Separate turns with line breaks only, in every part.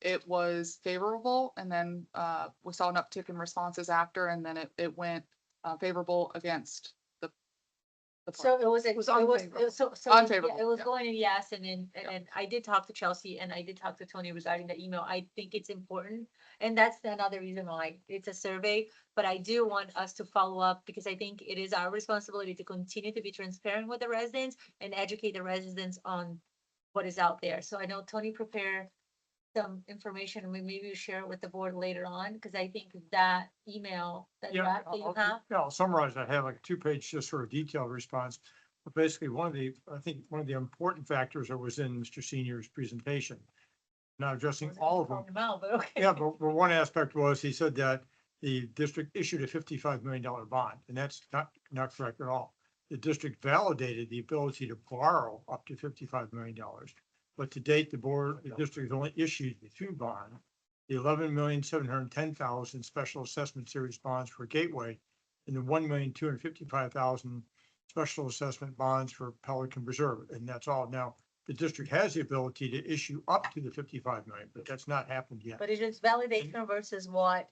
it was favorable and then uh, we saw an uptick in responses after and then it, it went uh, favorable against the. the plan.
So it was, it was,
was
it was,
unfavorable.
so, so, yeah,
Unfavorable,
it was
yeah.
going to yes, and then, and
Yeah.
then I did talk to Chelsea and I did talk to Tony regarding the email. I think it's important. And that's another reason why it's a survey, but I do want us to follow up because I think it is our responsibility to continue to be transparent with the residents and educate the residents on what is out there. So I know Tony prepared some information and we maybe we share it with the board later on, because I think that email, that
Yeah,
draft that you
I'll-
have.
I'll- yeah, I'll summarize. I have like a two-page, just sort of detailed response. But basically, one of the, I think, one of the important factors that was in Mr. Senior's presentation, not addressing
wasn't
all of them,
calling out, but okay.
Yeah, but, but one aspect was, he said that the district issued a fifty-five million dollar bond, and that's not, not correct at all. The district validated the ability to borrow up to fifty-five million dollars, but to date, the board, the district has only issued the two bond. The eleven million, seven hundred and ten thousand special assessment series bonds for Gateway, and the one million, two hundred and fifty-five thousand special assessment bonds for Pelican Reserve, and that's all. Now, the district has the ability to issue up to the fifty-five million, but that's not happened yet.
But it's just validation versus what.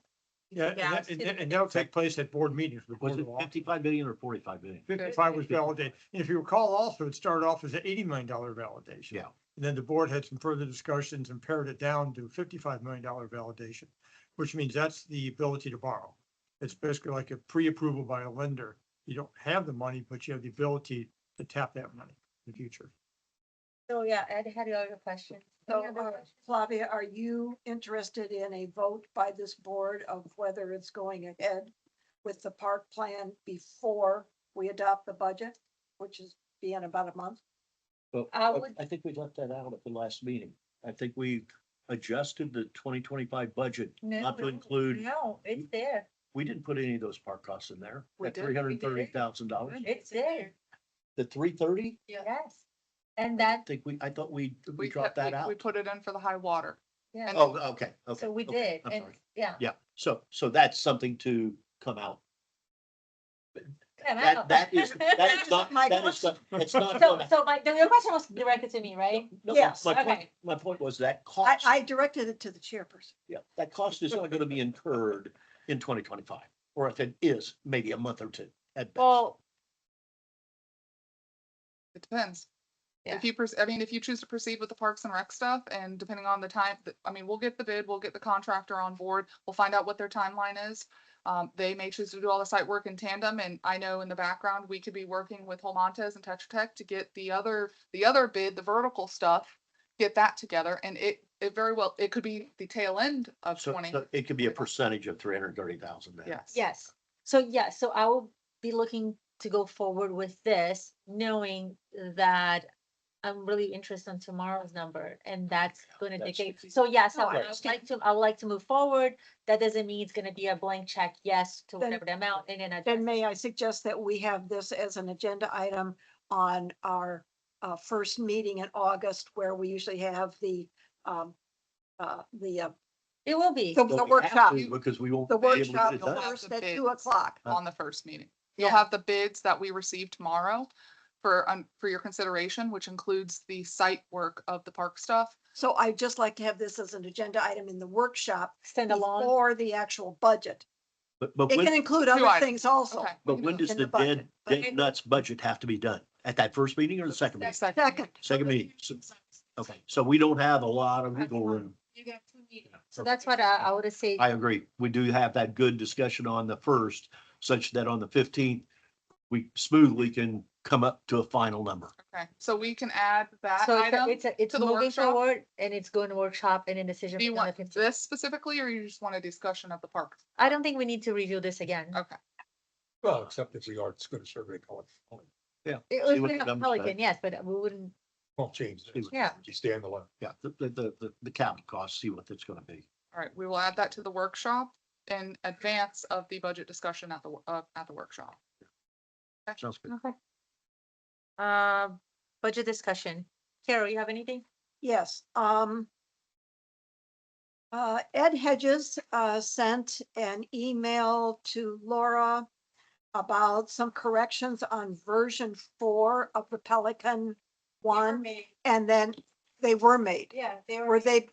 you
Yeah, and
guys
that, and
do.
that- and that'll take place at board meetings. with the
Was
board
it
of Alderman.
fifty-five million or forty-five million?
Fifty-five was validated. And if you recall also, it started off as an eighty million dollar validation.
Yeah.
And then the board had some further discussions and pared it down to fifty-five million dollar validation, which means that's the ability to borrow. It's basically like a pre-approval by a lender. You don't have the money, but you have the ability to tap that money in the future.
So, yeah, Ed had your other question.
So,
Any other
uh,
questions?
Flavia, are you interested in a vote by this board of whether it's going ahead with the park plan before we adopt the budget, which is be in about a month?
But
I
but
would-
I think we left that out at the last meeting. I think we adjusted the twenty twenty-five budget
No,
not to
no,
include,
No, it's there.
we didn't put any of those park costs in there.
We
At
did,
three
we
hundred
did.
and thirty thousand dollars.
It's there.
The three thirty?
Yeah.
Yes. And that,
Think we, I thought we, we
kept-
dropped that
We
out.
put it in for the high water.
yeah.
Oh, okay, okay.
So we
okay,
did,
I'm
and,
sorry.
yeah.
Yeah, so, so that's something to come out.
come
That,
out.
that is, that is not,
My
that is, not- it's not.
So,
gonna-
so my, the your question was directed to me, right?
no,
Yes,
My point,
okay.
my point was that
I,
cost.
I directed it to the chairperson.
Yeah, that cost is not gonna be incurred in twenty twenty-five, or if it is, maybe a month or two at best.
Well. It depends. If you, pers- I mean, if you choose to proceed with the Parks and Rec stuff and depending on the time, th- I mean, we'll get the bid, we'll get the contractor on board, we'll find out what their timeline is. Um, they may choose to do all the site work in tandem and I know in the background, we could be working with Holmontes and Tetra Tech to get the other, the other bid, the vertical stuff. Get that together and it, it very well, it could be the tail end
Oh,
of
So,
twenty,
so it could be a percentage of three hundred and thirty thousand then.
yes.
Yes, so yeah, so I will be looking to go forward with this, knowing that I'm really interested in tomorrow's number, and that's gonna
that's-
dictate, so yes, I
No, I
would I would
understand.
like to, I would like to move forward. That doesn't mean it's gonna be a blank check, yes, to
Then-
whatever the amount, and then I.
Then may I suggest that we have this as an agenda item on our uh, first meeting in August where we usually have the, um, uh, the, uh,
It will be,
the-
But
the
we have
workshop,
to, Because we won't.
the
be able to
workshop
get it
the
done. Uh,
last-
first at
Bids.
two o'clock.
on the first meeting. You'll
Yeah.
have the bids that we receive tomorrow for, um, for your consideration, which includes the site work of the park stuff.
So I'd just like to have this as an agenda item in the workshop
stand alone,
before the actual budget.
But, but
It can
when,
include
Two
other
items.
things also.
Okay.
but when does
in the
the dead,
budget.
Okay.
dead nuts budget have to be done? At that first meeting or the second meeting?
Second.
Second,
Second meeting, so, okay, so we don't have a lot of wiggle room.
so that's what I, I would say,
I agree. We do have that good discussion on the first, such that on the fifteenth, we smoothly can come up to a final number.
Okay, so we can add that
so it's a-
item.
it's, a- it's
to the
moving
workshop?
forward, and it's going to workshop and then decision.
Do you
is on the
want
15th.
this specifically, or you just want a discussion of the park?
I don't think we need to review this again.
Okay.
Well, except if the art's gonna survey color,
It
See
was
what
been
the
a
numbers say.
Pelican, yes, but we wouldn't,
won't change.
See what-
Yeah.
You stand alone.
Yeah, the, the, the, the- the capital costs, see what that's gonna be.
All right, we will add that to the workshop in advance of the budget discussion at the, wo- uh, at the workshop.
Sounds good.
uh, budget discussion. Carol, you have anything?
Yes, um. Uh, Ed Hedges, uh, sent an email to Laura about some corrections on version four of the Pelican one, and then they were made.
Yeah,
Were they